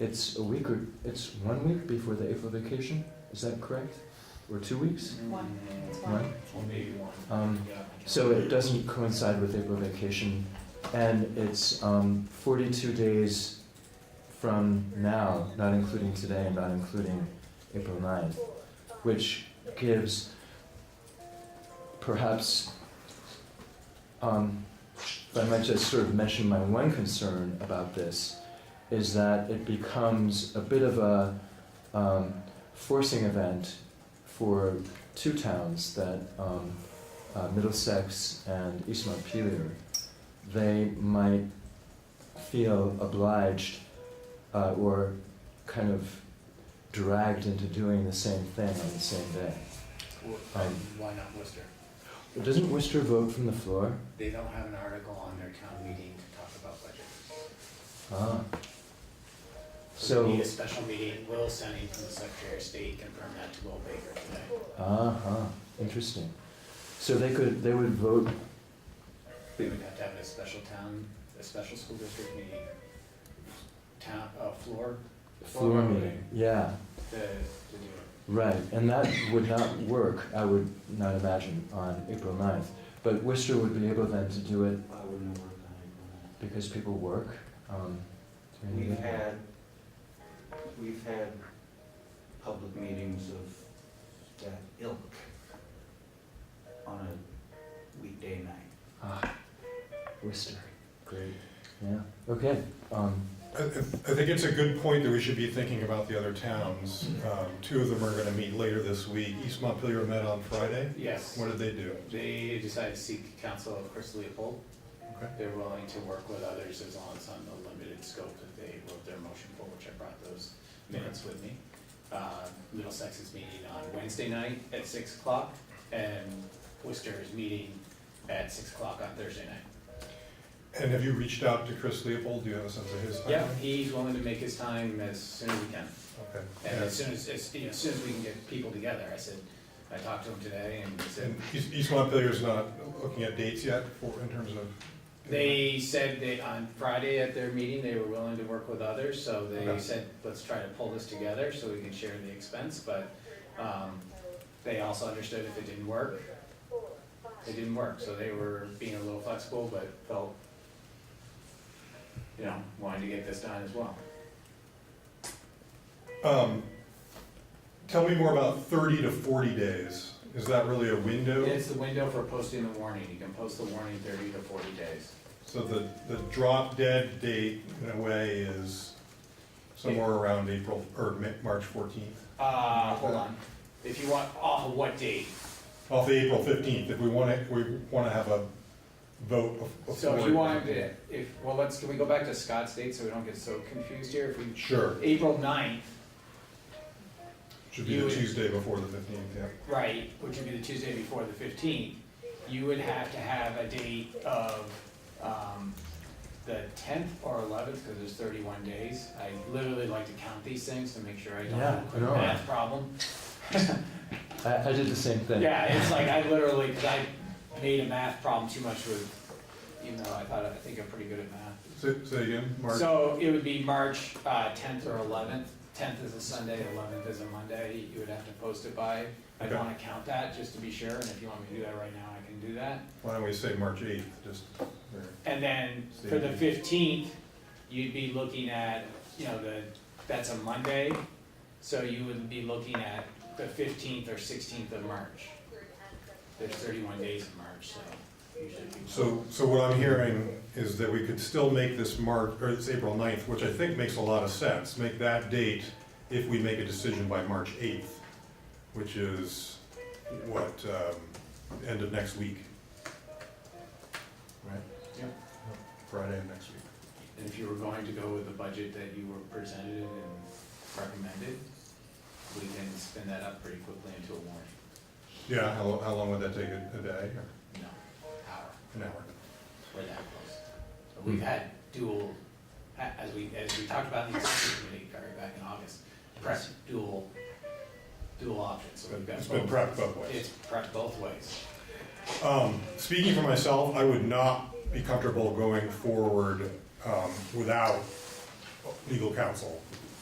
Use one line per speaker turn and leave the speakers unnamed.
It's a week or it's one week before the April vacation. Is that correct? Or two weeks?
One. It's one.
One.
Or maybe one.
Um,
Yeah.
So it doesn't coincide with April vacation, and it's um, 42 days from now, not including today and not including April 9th, which gives perhaps. Um, if I might just sort of mention my one concern about this, is that it becomes a bit of a um, forcing event for two towns that um, uh, Middlesex and East Montpelier, they might feel obliged uh, or kind of dragged into doing the same thing on the same day.
Well,
Um,
Why not Worcester?
Doesn't Worcester vote from the floor?
They don't have an article on their town meeting to talk about budget.
Ah.
So we
So,
need a special meeting, Will sending from the Secretary of State confirmed that to Will Baker today.
ah, huh, interesting. So they could, they would vote,
We would have to have a special town, a special school district meeting. Town, uh, floor,
floor meeting, yeah.
to, to do it.
Right, and that would not work, I would not imagine, on April 9th. But Worcester would be able then to do it
I wouldn't have worked on
because people work. Um,
it.
during the
We've
day.
had, we've had public meetings of that ilk on a weekday night.
Ah, Worcester. Great. Yeah. Okay. Um,
I, I I think it's a good point that we should be thinking about the other towns. Um, Two of them are gonna meet later this week. East Montpelier met on Friday.
Yes,
What did they do?
they decided to seek counsel of Chris Leopold.
Okay.
They're willing to work with others as long as on the limited scope that they wrote their motion for, which I brought those minutes with me. Uh, Middlesex is meeting on Wednesday night at six o'clock, and Worcester is meeting at six o'clock on Thursday night.
And have you reached out to Chris Leopold? Do you have a sense of his time?
Yeah, he's willing to make his time as soon as we can,
Okay.
and as
Yeah.
soon as, as, you know, as soon as we can get people together, I said, I talked to him today, and he said,
And East, East Montpelier's not looking at dates yet for, in terms of?
They said that on Friday at their meeting, they were willing to work with others, so they
Okay.
said, let's try to pull this together so we can share the expense, but, um, they also understood if it didn't work, it didn't work, so they were being a little flexible, but felt, you know, wanting to get this done as well.
Um, Tell me more about thirty to forty days. Is that really a window?
It's the window for posting the warning, you can post the warning thirty to forty days.
So the, the drop dead date in a way is somewhere around April, or Ma- March fourteenth?
Uh, hold on, if you want, off of what date?
off April fifteenth, if we want to, we want to have a vote bef- before.
So if you wanted to, if, well, let's, can we go back to Scott's date so we don't get so confused here? If we,
Sure,
April ninth,
should be
You
the
would-
Tuesday before the fifteenth, yeah.
right, which would be the Tuesday before the fifteenth, you would have to have a date of, um, the tenth or eleventh, because there's thirty-one days. I literally like to count these things to make sure I don't
Yeah,
have a quick
no.
math problem.
I, I did the same thing.
Yeah, it's like I literally, because I made a math problem too much with, even though I thought, I think I'm pretty good at math.
Say, say again, March,
So it would be March uh, tenth or eleventh. Tenth is a Sunday, eleventh is a Monday. You would have to post it by. I'd
Okay.
want to count that just to be sure, and if you want me to do that right now, I can do that.
why don't we say March eighth, just, there.
And then for the
Same.
fifteenth, you'd be looking at, you know, the, that's a Monday. So you would be looking at the fifteenth or sixteenth of March. There's thirty-one days in March, so usually. people-
so, so what I'm hearing is that we could still make this March, or this April 9th, which I think makes a lot of sense, make that date if we make a decision by March eighth, which is, what, um, end of next week? Right?
Yep.
Friday of next week.
And if you were going to go with the budget that you were presented and recommended, we can spin that up pretty quickly into a warning.
Yeah, how, lo- how long would that take, a a day or
No, hour,
an hour?
we're that close. But
Hmm.
We've had dual, a- as we, as we talked about in the executive committee, Gary, back in August, prep dual, dual options, so we've got
It's been
both.
prepped both ways.
It's prepped both ways.
Um, Speaking for myself, I would not be comfortable going forward um, without legal counsel